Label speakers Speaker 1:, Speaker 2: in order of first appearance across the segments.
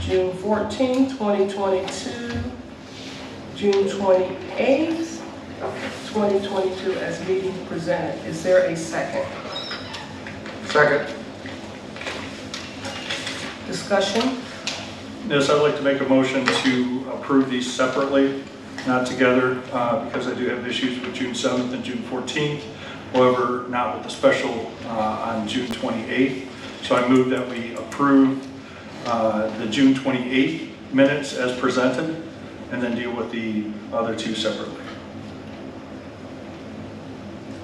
Speaker 1: June 14, 2022, June 28, 2022, as meeting presented. Is there a second?
Speaker 2: Second.
Speaker 1: Discussion?
Speaker 3: Yes, I'd like to make a motion to approve these separately, not together, uh, because I do have issues with June 7th and June 14th. However, not with the special uh, on June 28th. So I move that we approve uh, the June 28th minutes as presented, and then deal with the other two separately.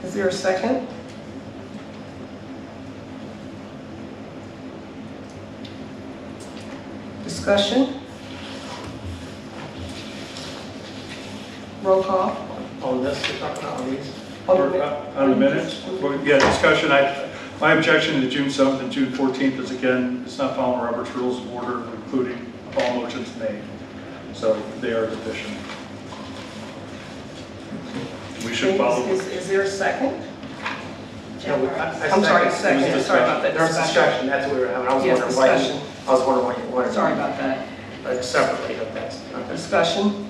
Speaker 1: Is there a second? Discussion? Roll call.
Speaker 2: On this, we're talking about on these?
Speaker 1: Alderman-
Speaker 3: On the minutes? Well, Yeah, discussion, I, my objection to June 7th and June 14th is again, it's not following Robert's Rules of Order, including all motions made. So they are deficient. We should follow.
Speaker 1: Is, is there a second?
Speaker 2: No, we- I- I
Speaker 1: I'm sorry,
Speaker 2: second.
Speaker 3: There
Speaker 1: second,
Speaker 3: was
Speaker 1: sorry about that.
Speaker 2: There was discussion, that's what we were having, I was
Speaker 1: Yes,
Speaker 2: wondering why, you-
Speaker 1: discussion.
Speaker 2: I was wondering why you wanted.
Speaker 1: Sorry about that.
Speaker 2: Like separately, but that's, okay.
Speaker 1: Discussion?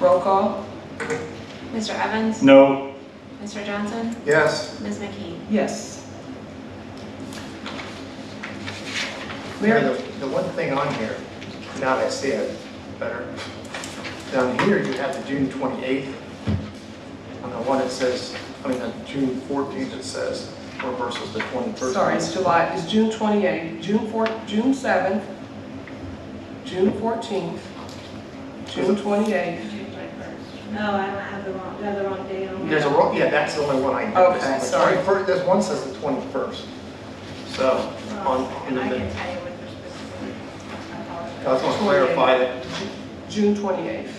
Speaker 1: Roll call?
Speaker 4: Mr. Evans?
Speaker 3: No,
Speaker 4: Mr. Johnson?
Speaker 2: Yes,
Speaker 4: Ms. McKee?
Speaker 1: Yes.
Speaker 2: Mary,
Speaker 1: Mayor,
Speaker 2: the the one thing on here, now that I see it better, down here you have the June 28th. On the one it says, I mean, on June 14th it says, or versus the 21st.
Speaker 1: sorry, it's July, it's June 28th, June 4, June 7th, June 14th, June 28th.
Speaker 5: No, Oh, I don't have the wrong, you have the wrong date on
Speaker 2: There's a, wrong- yeah, that's the only one I
Speaker 1: Okay,
Speaker 2: noticed. The
Speaker 1: sorry.
Speaker 2: 21st This one says the 21st. So,
Speaker 1: Oh,
Speaker 2: on, on
Speaker 5: And Oh, I can
Speaker 2: the-
Speaker 5: tell you what they're specifically. I
Speaker 2: I
Speaker 5: apologize.
Speaker 2: just want to clarify that
Speaker 1: June 28th.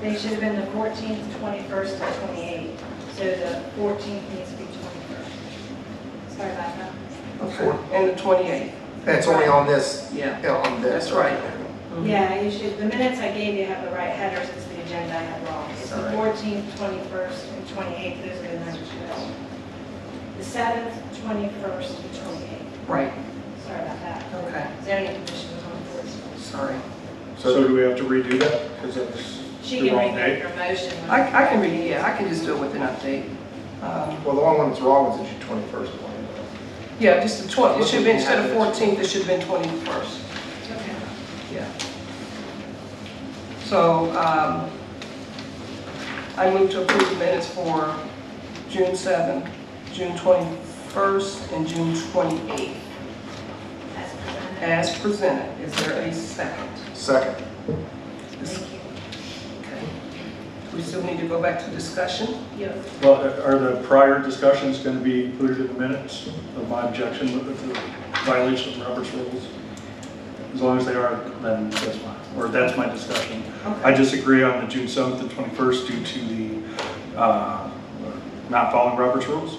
Speaker 5: They should have been the 14th, 21st, and 28th. So the 14th needs to be 21st. Sorry about that.
Speaker 2: Mm-hmm. Okay.
Speaker 1: And the 28th.
Speaker 2: And it's only on this,
Speaker 1: Yeah.
Speaker 2: you know, on this.
Speaker 1: That's right.
Speaker 5: Yeah, you should, the minutes I gave you have the right headers, it's the agenda I had wrong. It's the
Speaker 2: Sorry.
Speaker 5: 14th, 21st, and 28th, those are the numbers you know. The 7th, 21st, and 28th.
Speaker 1: Right,
Speaker 5: Sorry about that.
Speaker 1: okay,
Speaker 5: Zoning commission was on the 14th.
Speaker 1: sorry.
Speaker 3: so do we have to redo that? Because it's
Speaker 5: She
Speaker 3: the
Speaker 5: can
Speaker 3: wrong
Speaker 5: remake
Speaker 3: date.
Speaker 5: her motion.
Speaker 1: I, I can read, yeah, I can just do it with an update. Um,
Speaker 2: Well, the only one that's wrong is the June 21st one.
Speaker 1: Yeah, just the 20, it should have been, instead of 14th, it should have been 21st.
Speaker 5: Okay.
Speaker 1: Yeah. So um, I move to approve the minutes for June 7th, June 21st, and June 28th
Speaker 5: As presented.
Speaker 1: as presented. Is there a second?
Speaker 2: Second.
Speaker 5: Thank you.
Speaker 1: Okay. We still need to go back to discussion?
Speaker 5: Yes.
Speaker 3: Well, are the prior discussions going to be included in the minutes of my objection with the violation of Robert's Rules? As long as they are, then that's fine, or that's my discussion. I
Speaker 1: Okay.
Speaker 3: disagree on the June 7th and 21st due to the uh, not following Robert's rules.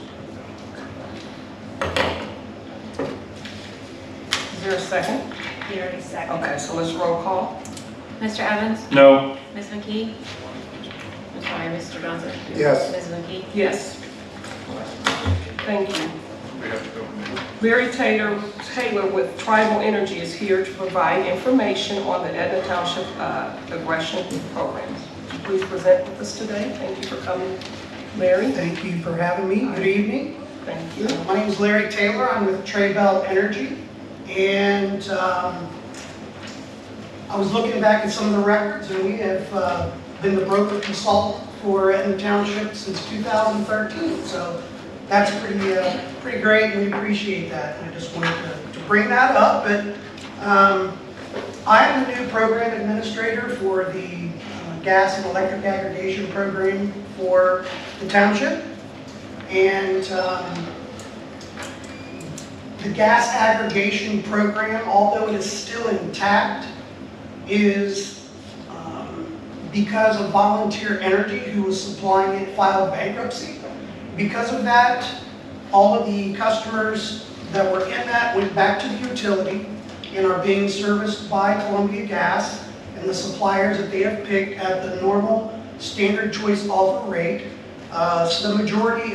Speaker 1: Is there a second?
Speaker 5: He already seconded.
Speaker 1: Okay, so let's roll call.
Speaker 4: Mr. Evans?
Speaker 3: No,
Speaker 4: Ms. McKee? I'm sorry, Mr. Johnson?
Speaker 2: Yes.
Speaker 4: Ms. McKee?
Speaker 1: Yes. Thank you.
Speaker 3: we have to go.
Speaker 1: Mary Taylor, Taylor with Tribal Energy is here to provide information on the Edna Township uh, Aggression Program. Please present with us today. Thank you for coming, Mary.
Speaker 6: Thank you for having me. Good evening.
Speaker 1: Thank you.
Speaker 6: My name is Larry Taylor. I'm with Trey Bell Energy. And um, I was looking back at some of the records, and we have uh, been the broker consultant for Etna Township since 2013. So that's pretty, uh, pretty great, and we appreciate that. And I just wanted to- to bring that up. But um, I am the new program administrator for the uh, gas and electric aggregation program for the township. And um, the gas aggregation program, although it is still intact, is um, because of Volunteer Energy, who was supplying it, filed bankruptcy. Because of that, all of the customers that were in that went back to the utility and are being serviced by Columbia Gas and the suppliers that they have picked at the normal standard choice offer rate. Uh, So the majority